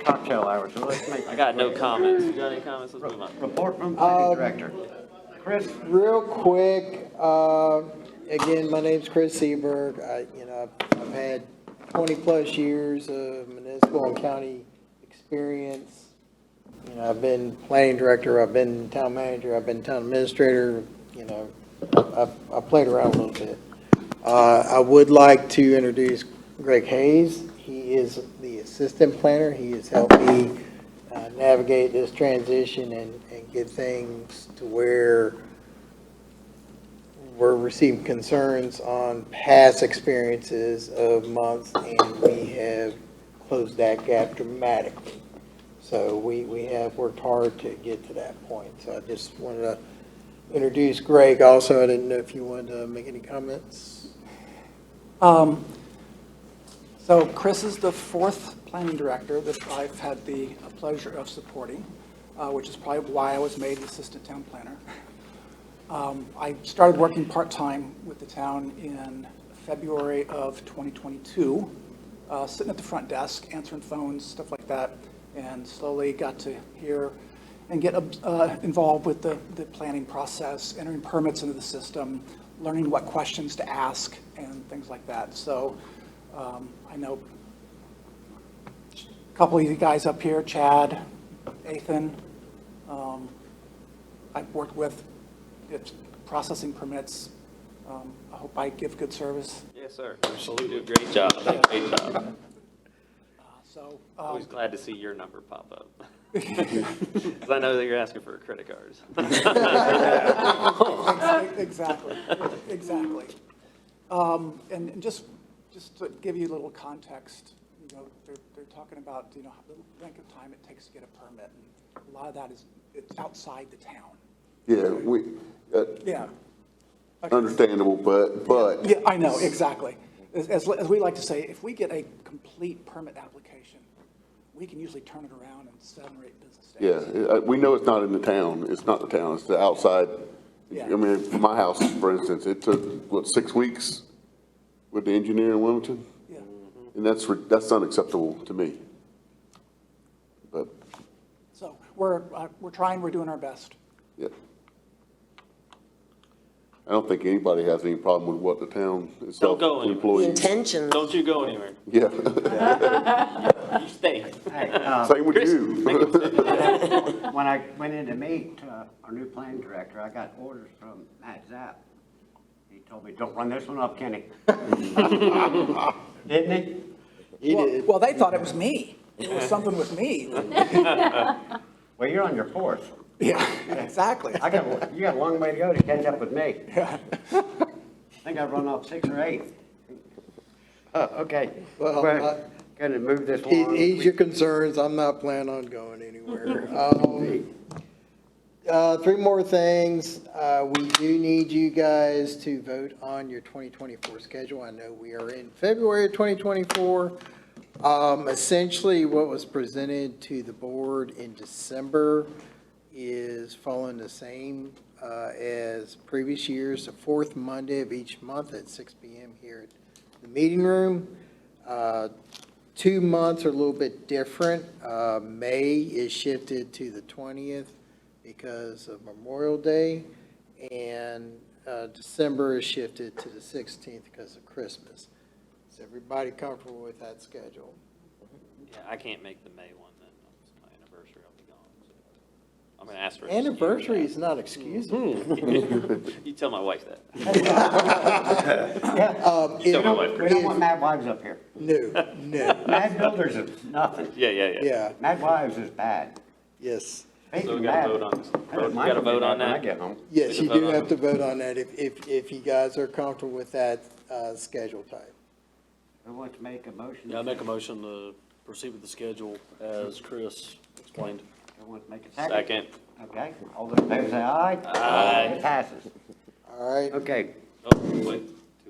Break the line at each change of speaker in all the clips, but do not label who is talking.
cocktail hour, so let's make.
I got no comments. You got any comments? Let's move on.
Report from city
Um,
director. Chris,
Real quick, uh, again, my name's Chris Seberg. I, you know, I've- I've had 20-plus years of municipal and county experience. You know, I've been planning director, I've been town manager, I've been town administrator, you know, I've- I've played around a little bit. Uh, I would like to introduce Greg Hayes. He is the assistant planner. He has helped me uh, navigate this transition and, and get things to where we're receiving concerns on past experiences of months, and we have closed that gap dramatically. So we, we have worked hard to get to that point. So I just wanted to introduce Greg also. I didn't know if you wanted to make any comments.
Um, So Chris is the fourth planning director that I've had the pleasure of supporting, uh, which is probably why I was made the assistant town planner. Um, I started working part-time with the town in February of 2022, uh, sitting at the front desk, answering phones, stuff like that, and slowly got to hear and get uh, involved with the, the planning process, entering permits into the system, learning what questions to ask, and things like that. So um, I know a couple of you guys up here, Chad, Ethan, um, I've worked with, it's processing permits. Um, I hope I give good service.
Yes, sir. Absolutely. Great job. Great job.
Uh, So, um,
Always glad to see your number pop up. Because I know that you're asking for credit cards.
Ex- Exactly, exactly. Um, And and just, just to give you a little context, you know, they're, they're talking about, you know, the length of time it takes to get a permit. and A lot of that is, it's outside the town.
Yeah, we, uh,
Yeah. Okay.
understandable, but, but.
Yeah, I know, exactly. As, as as we like to say, if we get a complete permit application, we can usually turn it around in seven or eight business
Yeah,
days.
uh, we know it's not in the town, it's not the town, it's the outside.
Yeah.
I mean, for my house, for instance, it took, what, six weeks with the engineer in Wilmington?
Yeah.
Mm.
And that's, re- that's unacceptable to me. But,
So we're, uh, we're trying, we're doing our best.
yeah. I don't think anybody has any problem with what the town itself
go anywhere.
employs.
Intentions.
Don't you go anywhere.
Yeah,
You stay.
hey, uh,
same with
Chris, make
you.
him stay.
when I went in to meet uh, our new planning director, I got orders from Matt Zapp. He told me, don't run this one up, Kenny. Didn't he?
He
Well-
did.
Well, they thought it was me. It was something with me.
Well, you're on your fourth.
Yeah, exactly.
I got, you got a long way to go to catch up with me. I think I've run off six or eight. Uh, okay,
Well,
we're
I-
gonna move this
He-
along.
He's your concerns, I'm not planning on going anywhere. Um, uh, Three more things, Uh, we do need you guys to vote on your 2024 schedule. I know we are in February of 2024. Um, Essentially, what was presented to the board in December is following the same uh, as previous years, the fourth Monday of each month at 6 PM here at the meeting room. Uh, Two months are a little bit different. Uh, May is shifted to the 20th because of Memorial Day, and uh, December is shifted to the 16th because of Christmas. Is everybody comfortable with that schedule?
Yeah, I can't make the May one then. It's my anniversary. I'll be gone. so. I'm gonna ask for. an excuse.
Anniversary is not excusable.
You tell my wife that.
Um,
Mm-hmm. You
if-
don't want-
We don't want mad wives up here.
No, no,
Mad builders is nothing.
Yeah, yeah, yeah.
yeah,
Mad wives is bad.
yes.
So
Speaking
we
of
gotta
mad-
vote on this.
I don't mind
We gotta
being
vote
mad
on
when I
that.
get home.
Yes, you
Vote
do
on
have
it.
to vote on that if, if, if you guys are comfortable with that uh, schedule type.
Who wants to make a motion?
Yeah, I make a motion to proceed with the schedule as Chris explained.
Who wants to make a second?
Second.
Okay, all those in favor say aye.
Aye.
It passes.
All right,
Okay,
Oh, wait. Two more.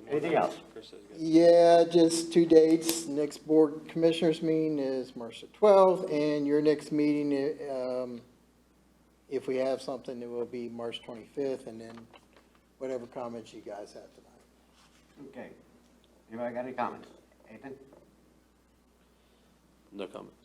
Anything else?
Chris says good.
Yeah, just two dates. Next board commissioners meeting is March the twelfth, and your next meeting, um, if we have something, it will be March twenty-fifth, and then whatever comments you guys have tonight.
okay. Anybody got any comments? Ethan?
No comments.